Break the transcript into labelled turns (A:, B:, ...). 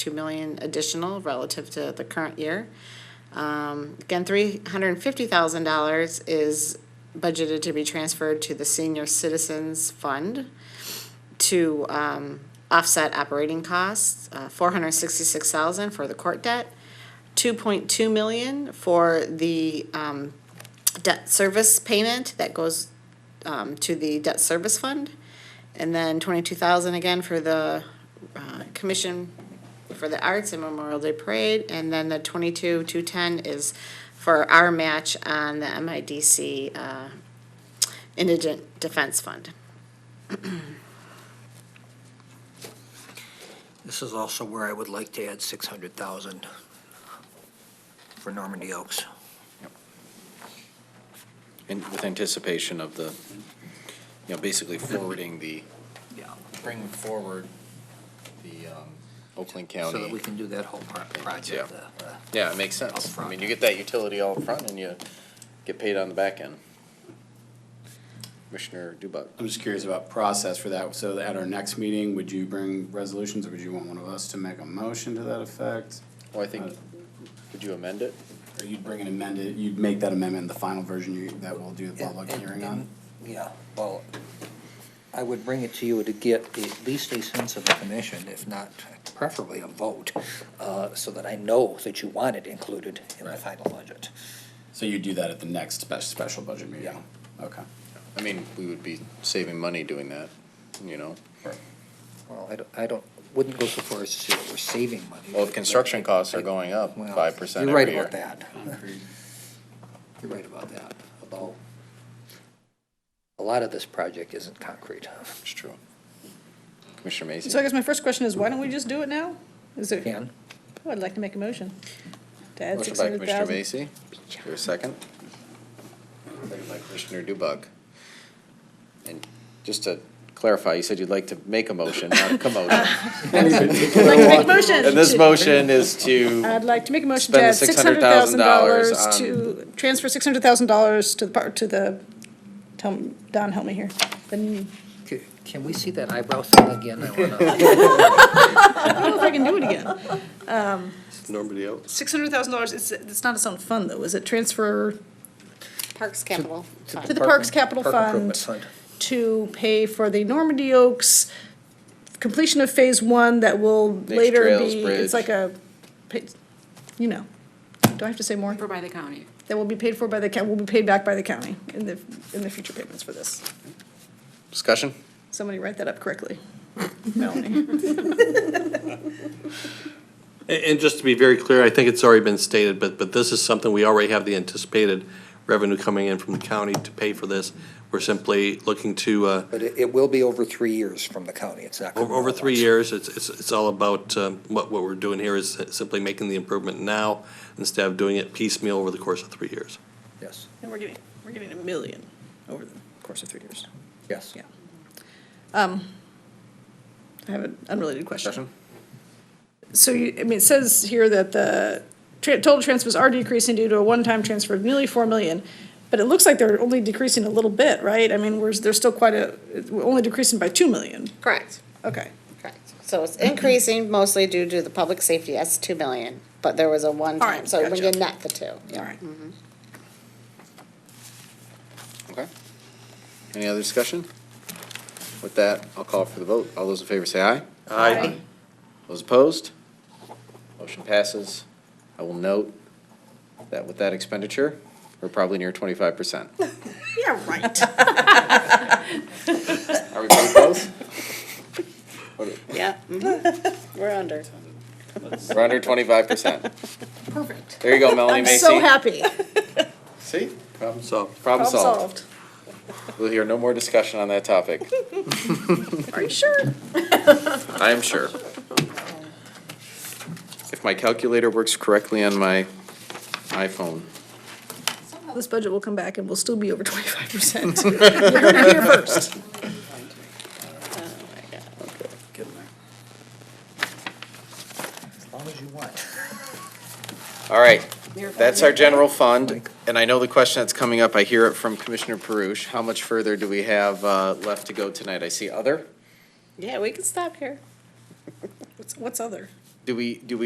A: 2 million additional relative to the current year. Um, Again, $350,000 is budgeted to be transferred to the Senior Citizens Fund to um, offset operating costs, uh, 466,000 for the court debt, 2.2 million for the um, debt service payment that goes um, to the debt service fund, and then 22,000 again for the uh, commission for the arts and Memorial Day Parade, and then the 22, 210 is for our match on the MIDC uh, Indigent Defense Fund.
B: This is also where I would like to add six hundred thousand for Normandy Oaks.
C: And with anticipation of the, you know, basically forwarding the,
B: Yeah.
C: bringing forward the um, Oakland
B: So that
C: County.
B: we can do that whole pro- project. uh, uh,
C: Yeah, it makes sense. I mean, you get that utility all up front and you get paid on the back end. Commissioner Dubak.
D: I'm just curious about process for that. So at our next meeting, would you bring resolutions or would you want one of us to make a motion to that effect?
C: Well, I think, could you amend it?
D: Or you'd bring an amended, you'd make that amendment, the final version you, that we'll do the public
B: and-
D: hearing
B: and-
D: on?
B: Yeah, well, I would bring it to you to get at least a sense of the commission, if not preferably a vote, uh, so that I know that you want it included in the final budget.
D: So you do that at the next spe- special budget meeting?
B: Yeah.
D: Okay.
C: I mean, we would be saving money doing that, you know?
B: Well, I don't, I don't, wouldn't go so far as to say that we're saving money.
C: Well, if construction costs are going up
B: Well,
C: five percent
B: You're right
C: every
B: about
C: year.
B: that. You're right about that, although a lot of this project isn't concrete.
C: It's true. Commissioner Macy.
E: So I guess my first question is, why don't we just do it now? Is there,
B: Can,
E: Oh, I'd like to make a motion to add
C: Motion
E: six
C: by
E: hundred
C: Commissioner
E: thousand.
C: Vacy, is there a second? Second by Commissioner Dubak. And just to clarify, you said you'd like to make a motion, not a commotion.
E: I'd like to make a motion.
C: And this
E: Uh, to- Uh,
C: motion is to,
E: I'd like to make a motion to
C: Spend
E: add
C: the
E: six hundred thousand
C: $600,000
E: dollars to, transfer six hundred thousand dollars to the, par- to the, tell, me- Don, help me here. The n-
B: c- can we see that eyebrow thing again? I wanna-
E: I don't know oh, if I can do it again.
F: Nobody else?
E: Six hundred thousand dollars, it's, it's not its own fund though, is it transfer
A: Parks Capital
E: to
A: Fund.
E: the Parks Capital
B: Park Improvement
E: Fund
B: Fund.
E: to pay for the Normandy Oaks completion of phase one that will later
C: Trails
E: be,
C: Bridge.
E: it's like a, pa- you know, do I have to say more?
G: Or by the county.
E: that will be paid for by the, coun- will be paid back by the county in the, in the future payments for this.
C: discussion?
E: Somebody write that up correctly. Melanie.
F: And, and just to be very clear, I think it's already been stated, but, but this is something we already have the anticipated revenue coming in from the county to pay for this. We're simply looking to, uh,
B: But it, it will be over three years from the county, it's not.
F: over,
B: coming
F: over
B: all at
F: three
B: once.
F: years, it's, it's, it's all about, um, what, what we're doing here is simply making the improvement now instead of doing it piecemeal over the course of three years.
B: Yes,
E: And we're getting, we're getting a million over the course of three years.
B: yes.
E: Yeah. Um, I have an unrelated question. So you, I mean, it says here that the tra- total transfers are decreasing due to a one-time transfer of nearly four million. But it looks like they're only decreasing a little bit, right? I mean, we're, they're still quite a, we're only decreasing by two million.
A: Correct,
E: Okay.
A: correct. So it's increasing mostly due to the public safety, that's 2 million, but there was a
E: All
A: one-time,
E: right,
A: so when you
E: gotcha.
A: net the two.
E: All right.
C: Okay. Any other discussion? With that, I'll call for the vote. All those in favor say aye.
E: Aye.
C: Those opposed? Motion passes. I will note that with that expenditure, we're probably near twenty-five percent.
E: Yeah, right.
C: Are we pretty close?
A: Yeah. mm-hmm. We're under.
C: We're under twenty-five percent.
E: Perfect.
C: There you go, Melanie
E: I'm
C: Macy.
E: so happy.
C: See? Problem
F: So,
C: Problem
E: Problem
C: solved.
E: solved.
C: We'll hear no more discussion on that topic,
E: Are you sure?
C: I am sure. If my calculator works correctly on my iPhone.
E: This budget will come back and we'll still be over twenty-five percent. You heard it here first.
B: As long as you want.
C: All right, that's our general fund, and I know the question that's coming up, I hear it from Commissioner Perush. How much further do we have uh, left to go tonight? I see other.
A: Yeah, we can stop here.
E: What's- What's other?
C: do we, do we